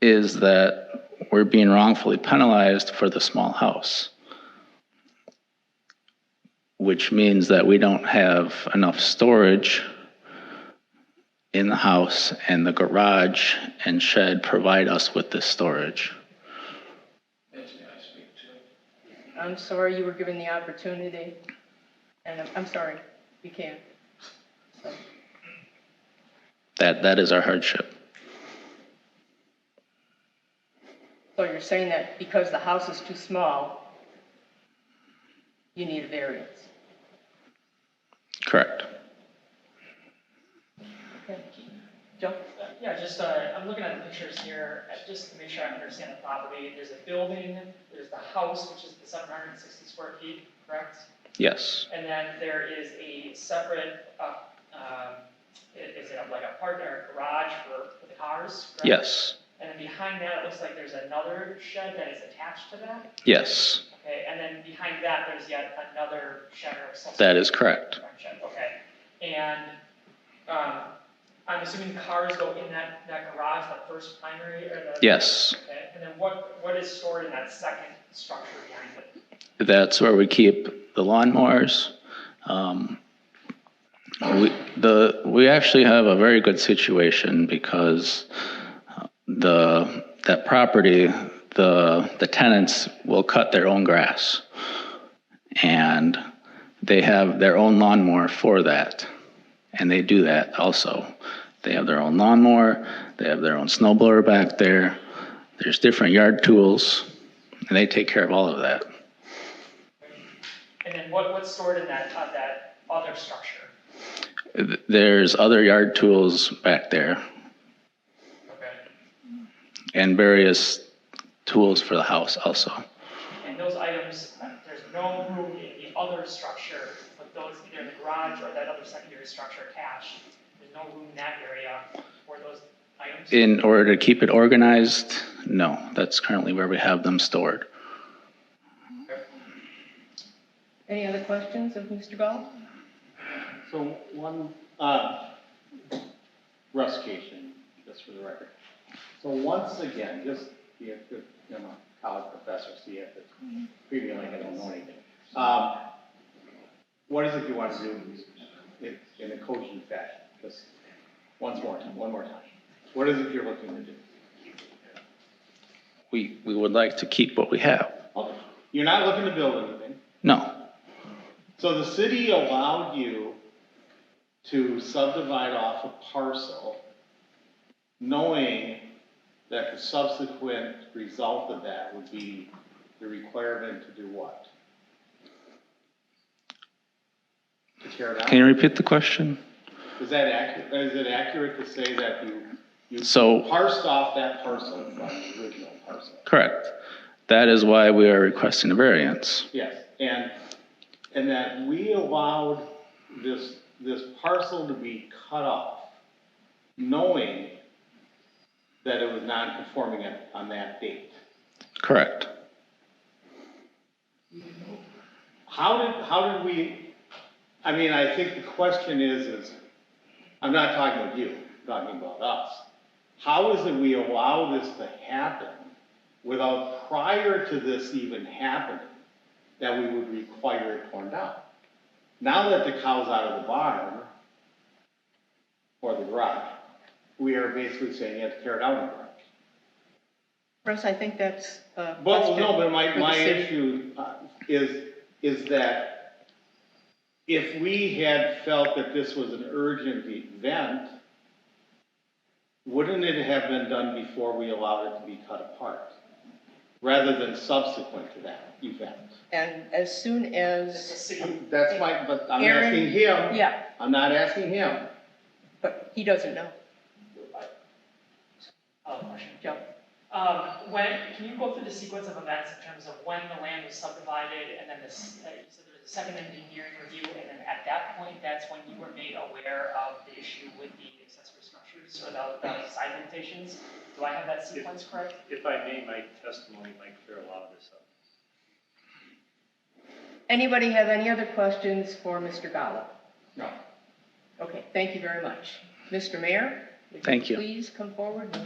is that we're being wrongfully penalized for the small house. Which means that we don't have enough storage in the house and the garage and shed provide us with this storage. I'm sorry you were given the opportunity, and I'm, I'm sorry, you can't. So, That, that is our hardship. so you're saying that because the house is too small, you need a variance? Correct. Okay. Joe? Yeah, just, uh, I'm looking at the pictures here, uh, just to make sure I understand the property. There's a building, there's the house, which is the seven hundred and sixty square feet, correct? Yes. And then there is a separate, uh, um, i- is it like a partner garage for, for the cars? correct? Yes. And then behind that, it looks like there's another shed that is attached to that, Yes. okay? And then behind that, there's yet another shed or accessory. That is correct. Friendship, okay. And, um, I'm assuming the cars go in that, that garage, the first primary or the? Yes. Okay, and then what, what is stored in that second structure behind it? That's where we keep the lawnmowers. Um, we, the, we actually have a very good situation because uh, the, that property, the, the tenants will cut their own grass. And they have their own lawnmower for that. And they do that also. They have their own lawnmower, they have their own snow blower back there. There's different yard tools, and they take care of all of that. And then what, what's stored in that, uh, that other structure? There's other yard tools back there Okay. and various tools for the house also. And those items, uh, there's no room in the other structure, but those, either the garage or that other secondary structure attached. There's no room in that area for those items? In order to keep it organized, no, that's currently where we have them stored. Any other questions of Mr. Gall? So one, uh, Rustication, just for the record. So once again, just, be a good, you know, college professor, see if it's previewing like I don't know anything. Um, what is it you want to do in, in a coaching fashion? Just once more, time, one more time. What is it you're looking to do? We, we would like to keep what we have. Okay. You're not looking to build anything. No, So the city allowed you to subdivide off a parcel, knowing that the subsequent result of that would be the requirement to do what? To tear it can you down? repeat the question? Is that accurate, is it accurate to say that you, you So, parsed off that parcel from the original parcel? correct. That is why we are requesting a variance. Yes, and, and that we allowed this, this parcel to be cut off, knowing that it was non-conforming at- on that date. Correct. How did, how did we, I mean, I think the question is, is, I'm not talking about you, I'm talking about us. How is it we allow this to happen without prior to this even happening, that we would require it torn down? Now that the cow's out of the barn, or the garage, we are basically saying you have to tear down the garage. Russ, I think that's a question. But, no, but for my, the my city. issue uh, is, is that if we had felt that this was an urgent event, wouldn't it have been done before we allowed it to be cut apart? Rather than subsequent to that event? And as soon It's a as, city, That's my, but I'm Aaron, asking him. yeah, I'm not asking him. but he doesn't know. oh, question. Joe? Um, when, can you go through the sequence of events in terms of when the land was subdivided and then this, uh, you said there was a second engineering review and then at that point, that's when you were made aware of the issue with the accessory structures or the, the side limitations? Do I have that sequence correct? If I may, my testimony might clear a lot of this up. Anybody have any other questions for Mr. Gallo? No. Okay, thank you very much. Mr. Mayor? would Thank you. Please come forward